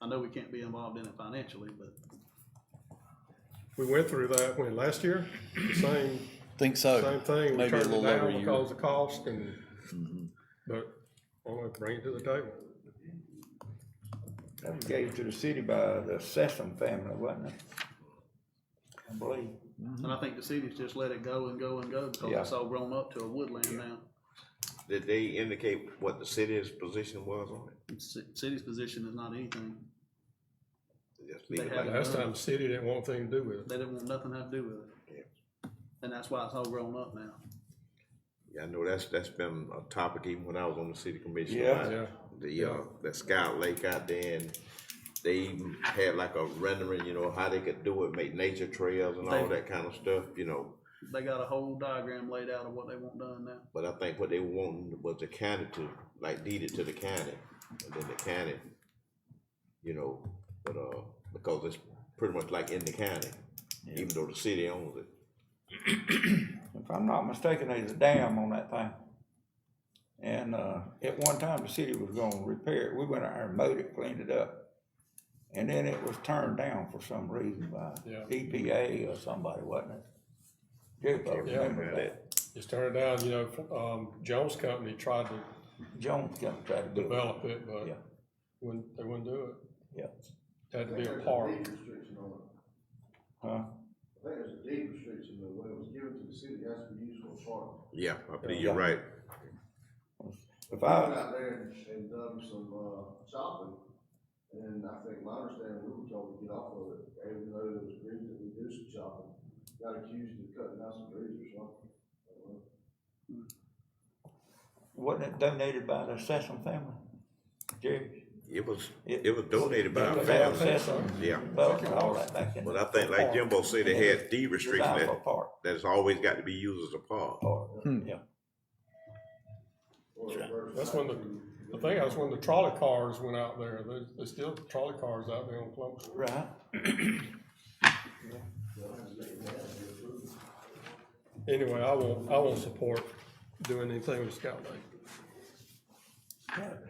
I know we can't be involved in it financially, but We went through that when, last year, the same, Think so. same thing, we Oh, Maybe a turned it little over down a year. Mm-hmm. because of cost and, but I want to bring it to the table. That was gave to the city by the Sessom family, wasn't it? I believe. and I think the city's just let it go and go and go because Yeah. it's all grown up to a woodland now. Did they indicate what the city's position was on it? And ci- City's position is not anything. Just leave They it like haven't. that. Last time, the city didn't want anything to do with it. They didn't want nothing to have to do with Yeah. it. And that's why it's all grown up now. Yeah, I know that's, that's been a topic even when I was on the city commission. Yeah. about Yeah. The, uh, that Scout Lake out there and they even had like a rendering, you know, how they could do it, make nature trails and all They- that kind of stuff, you know. They got a whole diagram laid out of what they want done now. But I think what they were wanting was the county to, like deed it to the county, and then the county, you know, but, uh, because it's pretty much like in the county, even though the city owns it. If I'm not mistaken, there's a dam on that thing. And, uh, at one time, the city was gonna repair it. We went out there and mowed it, cleaned it up. And then it was turned down for some reason by Yeah. EPA or somebody, wasn't it? Jericho, remember that? Just turned it down, you know, um, Jones Company tried to Jones come try to do it. develop it, but Yeah. wouldn't, they wouldn't do it. Yeah, Had to be a park. restriction on it. huh? I think there's a deed restriction though, when it was given to the city, it has to be used for a park. Yeah, I believe you're right. If I went I, out there and, and done some, uh, shopping, and I think my understanding, we were told to get off of it, even though it was agreed that we do some shopping. Got accused of cutting down some trees or something. wasn't it donated by the Sessom family? Jerry? It was, It- it was donated by It our was our family, Sessom, yeah. Buck and all that back in. But I think like Jimbo said, they had deed restriction Designed for that, a park, that's always got to be used as a park. park, yeah. or reverse That's when the, I think that's when the trolley cars went out there. There's, there's still trolley cars out there on Plum Street. Right. Anyway, I won't, I won't support doing anything with Scout Lake.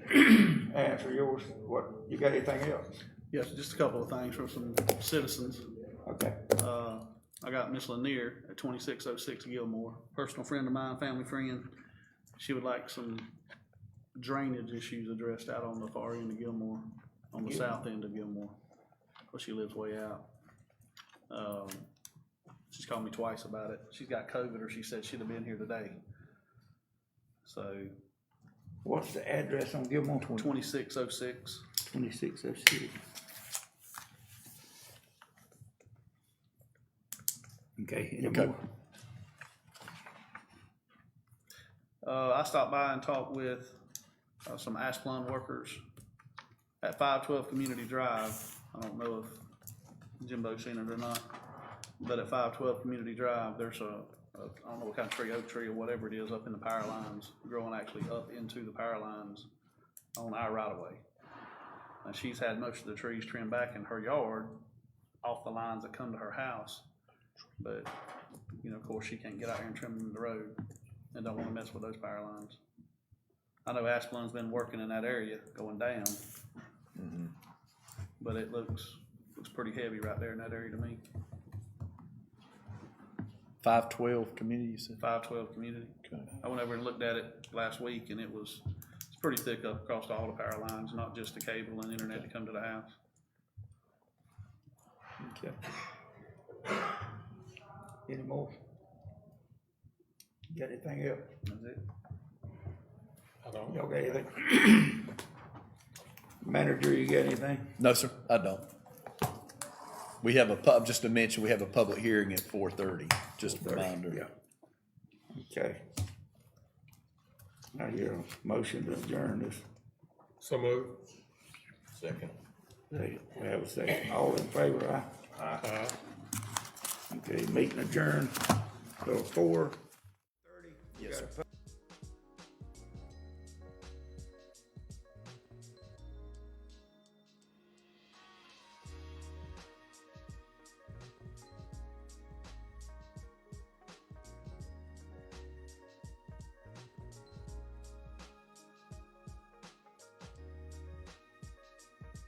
Answer yours, what, you got anything else? Yes, just a couple of things from some citizens. Okay, Uh, I got Miss Lanier at twenty-six oh six Gilmore, personal friend of mine, family friend. She would like some drainage issues addressed out on the far end of Gilmore, on the south end of Gilmore, where she lives way out. Um, she's called me twice about it. She's got COVID or she said she'd have been here today. So what's the address on Gilmore? twenty-six oh six. Twenty-six oh six. Okay, any more? Uh, I stopped by and talked with, uh, some Asplund workers at five twelve Community Drive. I don't know if Jimbo seen it or not, but at five twelve Community Drive, there's a, a, I don't know what kind of tree, oak tree or whatever it is up in the power lines, growing actually up into the power lines on our right of way. And she's had most of the trees trimmed back in her yard off the lines that come to her house. But, you know, of course, she can't get out here and trim the road and don't wanna mess with those power lines. I know Asplund's been working in that area going down. But it looks, looks pretty heavy right there in that area to me, Five twelve community, you said? five twelve community. Okay. I went over and looked at it last week and it was, it's pretty thick up across all the power lines, not just the cable and internet to come to the house. Okay. Any more? Got anything else? That's it. I don't, Y'all got anything? Manager, you got anything? No, sir, I don't. We have a pub, just to mention, we have a public hearing at four thirty, just a reminder. Okay. I hear a motion to adjourn this. so moved. Second. We have a second. All in favor, aye? Aye. Okay, meeting adjourned till four.